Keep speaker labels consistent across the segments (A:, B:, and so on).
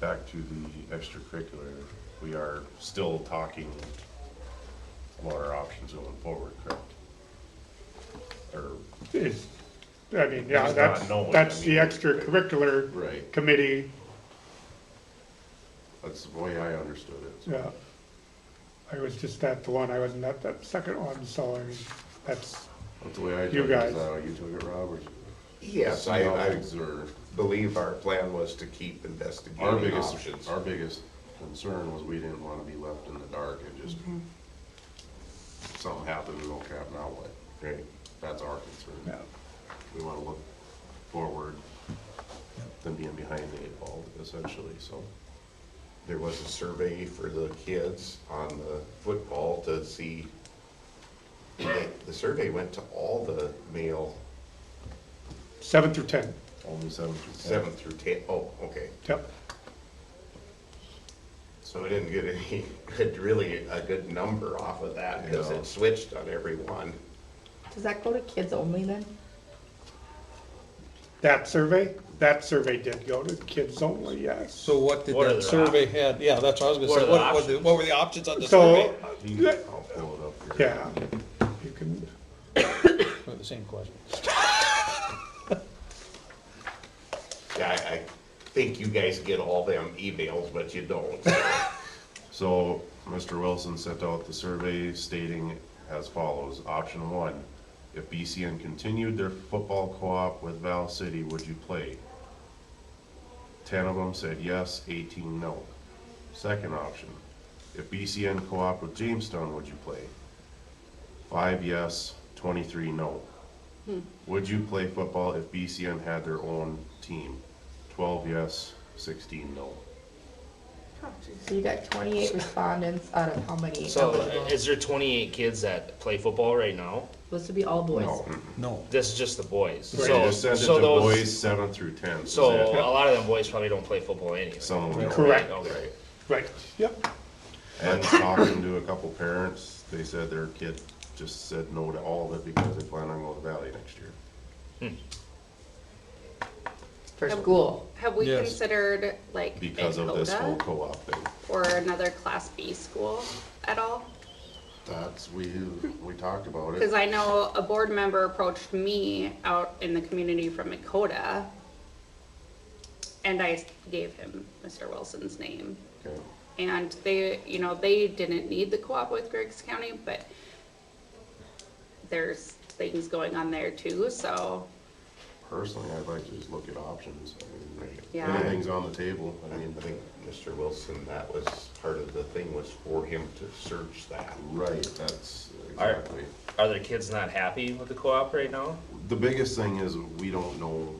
A: back to the extracurricular, we are still talking about our options going forward, correct? Or,
B: is, I mean, yeah,
A: Just not
B: that's,
A: knowing,
B: that's
A: I
B: the
A: mean.
B: extracurricular
A: right,
B: committee,
A: that's the way I understood it.
B: yeah. uh, I was just at the one, I wasn't at that second one, so I mean, that's,
A: That's the way I took it.
B: You
A: Is that
B: guys.
A: how you took it, Robert?
C: Yes, I, I
A: Observe.
C: believe our plan was to keep
A: Our
C: investigating options.
A: biggest, our biggest concern was we didn't wanna be left in the dark and just, something happened, we okay, now what?
C: Right.
A: That's our concern.
B: yeah,
A: We wanna look forward than being behind the eight ball essentially, so.
C: There was a survey for the kids on the football to see, the the survey went to all the male,
B: seven through ten,
A: Only seven through ten.
C: seven through ten. Oh, okay.
B: yep.
C: So we didn't get any, had really a good number off of that, because
A: No.
C: it switched on everyone.
D: Does that go to kids only then?
B: That survey, that survey did go to kids only, yes.
E: So what did
F: What
E: that
F: are the
E: survey had, yeah, that's what I was
F: What
E: gonna say,
F: are the
E: what, what, the- what were the options on the survey?
B: So,
A: I'll pull it up here.
B: yeah, you can,
E: Or The same question.
C: Yeah, I, I think you guys get all them emails, but you don't.
A: So, Mr. Wilson sent out the survey stating as follows, option one, if BCN continued their football co-op with Val City, would you play? Ten of them said yes, eighteen no. Second option, if BCN co-op with Jamestown, would you play? Five yes, twenty-three no. Would you play football if BCN had their own team? Twelve yes, sixteen no.
D: So you got twenty-eight respondents out of how many?
F: So
D: eligible?
F: is there twenty-eight kids that play football right now?
D: Supposed to be all boys.
A: No.
E: No.
F: This is just the boys.
A: They
F: So,
A: just sent it
F: so
A: to boys
F: those,
A: seven through ten.
F: so uh,
A: That's it.
F: a lot of them boys probably don't play football anyway.
A: some of them don't.
B: Correct.
F: Okay.
B: right, yep,
A: And talking to a couple parents, they said their kid just said no to all of it because they plan on going to Valley next year.
D: For school.
G: Have we
E: Yes.
G: considered like
A: Because of this whole
G: Dakota
A: co-op thing.
G: or another Class B school at all?
A: That's, we, we talked about
G: Because I know a board member approached me out in the community from Dakota, and I gave him Mr. Wilson's name.
A: Okay.
G: And they, you know, they didn't need the co-op with Griggs County, but there's things going on there too, so
A: Personally, I'd like to just look at options. I mean,
G: Yeah.
A: Anything's on the table. I
C: I mean,
A: mean,
C: I think Mr. Wilson, that was part of the thing was for him to search that.
A: right, that's
F: Alright.
A: exactly.
F: Are there kids not happy with the co-op right now?
A: The biggest thing is we don't know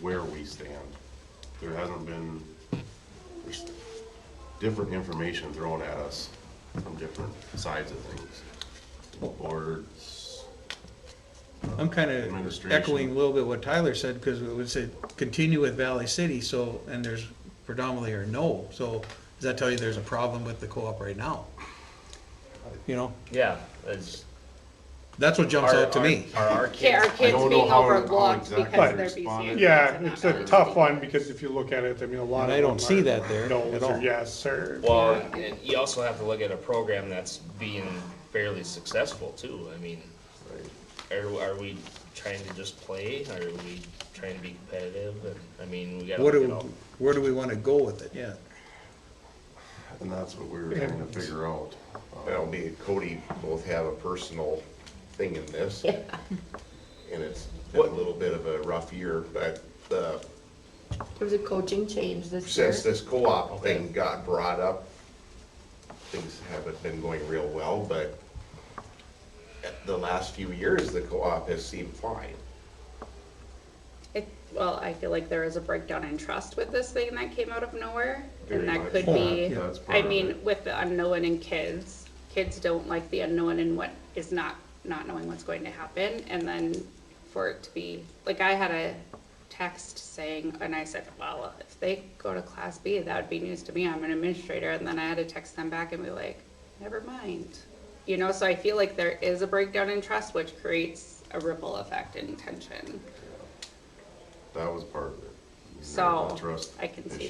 A: where we stand. There hasn't been, there's different information thrown at us from different sides of things. Boards,
H: I'm kind of
A: Administration.
H: echoing a little bit what Tyler said, because it would say, continue with Valley City, so, and there's predominantly or no, so does that tell you there's a problem with the co-op right now? You know,
F: Yeah, that's.
H: that's what jumps out to me.
F: Are our kids?
G: Yeah, our
A: I
G: kids
A: don't know
G: being
A: how- how
G: overlooked
A: exactly
G: because
A: they
G: they're BCN.
A: responded.
G: kids
B: yeah,
G: and not
B: it's a
G: others.
B: tough one, because if you look at it, I mean, a lot of
H: And
B: them
H: I
B: are.
H: don't see that there
B: No's
H: at
B: or
H: all.
B: yes, or,
F: Well, and you also have to look at a program that's being fairly successful too. I mean, are, are we trying to just play? Are we trying to be competitive? And, I mean, we gotta
H: What
F: look
H: do,
F: at all.
H: where do we want to go with it, yeah?
A: and that's what we were trying to figure out.
C: Well, me and Cody both have a personal thing in this. And it's been a little bit of a rough year, but uh,
D: There was a coaching change this year.
C: since this co-op thing got brought up, things haven't been going real well, but the last few years, the co-op has seemed fine.
G: I- Well, I feel like there is a breakdown in trust with this thing that came out of nowhere,
C: Very
G: and
C: much.
G: that could
C: Oh,
G: be,
A: yeah, that's part
G: I
A: of
G: mean,
A: it.
G: with the unknown in kids, kids don't like the unknown and what is not, not knowing what's going to happen, and then for it to be, like, I had a text saying, and I said, well, if they go to class B, that would be news to me, I'm an administrator, and then I had to text them back and be like, never mind. You know, so I feel like there is a breakdown in trust, which creates a ripple effect and tension.
A: That was part of it. You know,
G: So,
A: the Trust
G: I can see
A: issue.